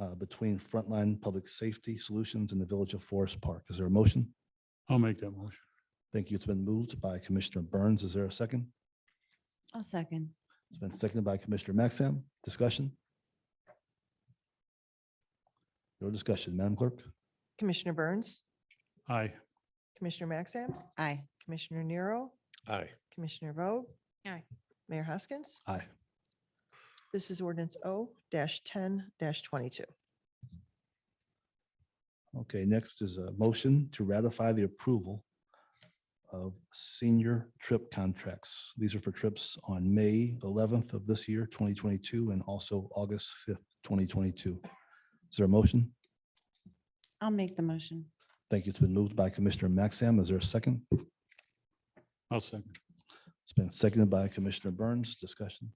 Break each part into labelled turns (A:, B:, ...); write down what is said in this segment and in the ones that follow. A: uh, between Frontline Public Safety Solutions and the Village of Forest Park. Is there a motion?
B: I'll make that motion.
A: Thank you. It's been moved by Commissioner Burns. Is there a second?
C: I'll second.
A: It's been seconded by Commissioner Maxim. Discussion? No discussion, Madam Clerk?
D: Commissioner Burns,
B: Aye.
D: Commissioner Maxam,
C: Aye.
D: Commissioner Nero,
E: Aye.
D: Commissioner Vogt.
C: Aye.
D: Mayor Hoskins,
A: Aye.
D: this is ordinance O ten twenty-two.
A: Okay, next is a motion to ratify the approval of senior trip contracts. These are for trips on May eleventh of this year, twenty twenty-two, and also August fifth, twenty twenty-two. Is there a motion?
C: I'll make the motion.
A: Thank you. It's been moved by Commissioner Maxim. Is there a second?
B: I'll second.
A: It's been seconded by Commissioner Burns. Discussion?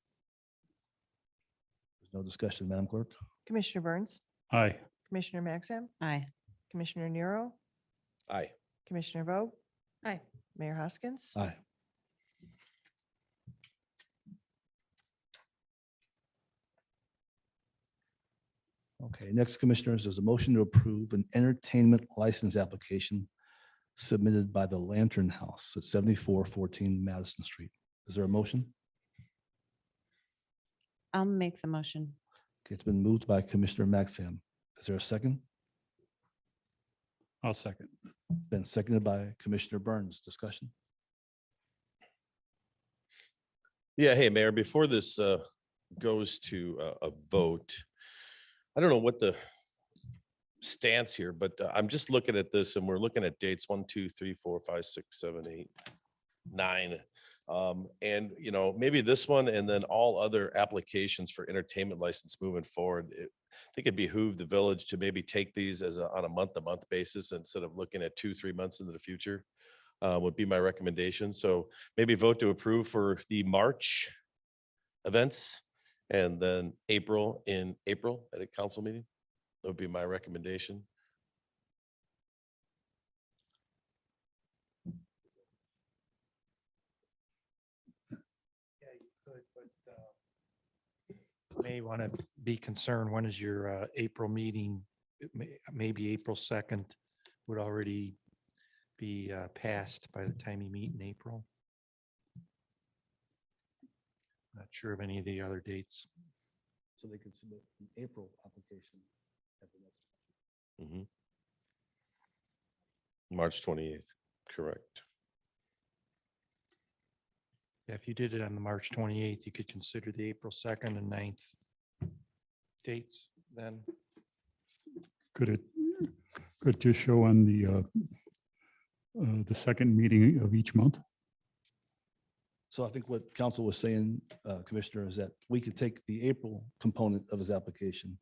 A: There's No discussion, Madam Clerk?
D: Commissioner Burns,
B: Aye.
D: Commissioner Maxam,
C: Aye.
D: Commissioner Nero,
E: Aye.
D: Commissioner Vogt,
C: Aye.
D: Mayor Hoskins.
A: Aye. Okay, next commissioners is a motion to approve an entertainment license application submitted by the Lantern House at seventy-four fourteen Madison Street. Is there a motion?
C: I'll make the motion.
A: Okay, It's been moved by Commissioner Maxim. Is there a second?
B: I'll second.
A: Been seconded by Commissioner Burns. Discussion?
E: Yeah, hey, Mayor, before this uh, goes to uh, a vote, I don't know what the stance here, but uh, I'm just looking at this and we're looking at dates, one, two, three, four, five, six, seven, eight, nine. Um, And, you know, maybe this one and then all other applications for entertainment license moving forward. it- I think it behooved the village to maybe take these as a, on a month-to-month basis instead of looking at two, three months into the future uh, would be my recommendation. So maybe vote to approve for the March events and then April in April at a council meeting. That would be my recommendation.
F: Yeah, you could, but uh, may want to be concerned, when is your uh, April meeting? It may- Maybe April 2nd would already be uh, passed by the time you meet in April. Not sure of any of the other dates.
A: So they could submit an April application. at the next-
E: Mhm. March twenty-eighth, correct.
F: If you did it on the March 28th, you could consider the April 2nd and 9th dates then.
B: Could it, could just show on the, uh, uh, the second meeting of each month?
A: So I think what council was saying, uh, Commissioner, is that we could take the April component of his application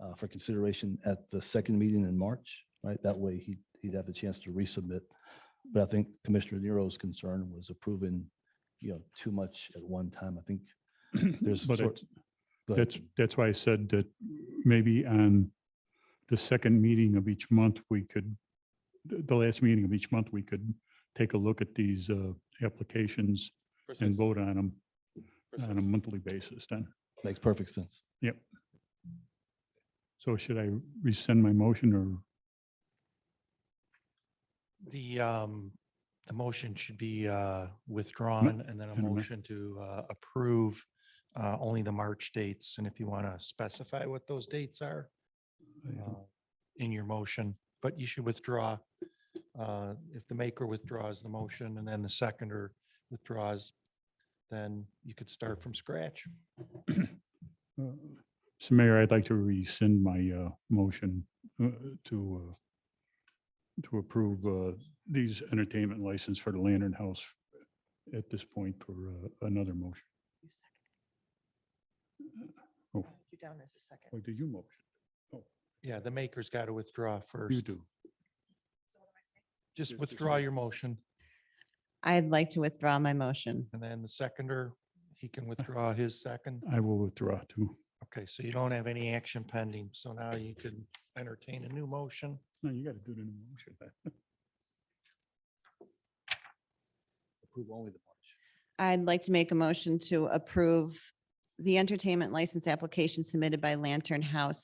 A: uh, for consideration at the second meeting in March, right? That way he, he'd have a chance to resubmit. But I think Commissioner Nero's concern was approving, you know, too much at one time. I think there's.
B: But
A: sort-
B: it-
A: Go ahead.
B: that's, that's why I said that maybe on the second meeting of each month, we could, the the last meeting of each month, we could take a look at these, uh, applications and vote on them on a monthly basis then.
A: Makes perfect sense.
B: So should I rescind my motion or?
F: The, um, the motion should be, uh, withdrawn and then a
B: and amend-
F: motion to, uh, approve, uh, only the March dates. And if you want to specify what those dates are, uh, in your motion, but you should withdraw. Uh, if the maker withdraws the motion and then the seconder withdraws, then you could start from scratch.
B: Uh, So Mayor, I'd like to rescind my uh, motion uh, to uh, to approve uh, these entertainment license for the Lantern House at this point for uh, another motion. Oh,
D: You down as a second.
B: oh, did you motion?
F: Yeah, the maker's got to withdraw first.
B: You do.
F: Just
B: Just
F: withdraw
B: rescind.
F: your motion
C: I'd like to withdraw my motion.
F: and then the seconder, he can withdraw his second.
B: I will withdraw too.
F: Okay, so you don't have any action pending, so now you can entertain a new motion.
B: No, you got to do the new motion.
A: Approve only the March.
C: I'd like to make a motion to approve the entertainment license application submitted by Lantern House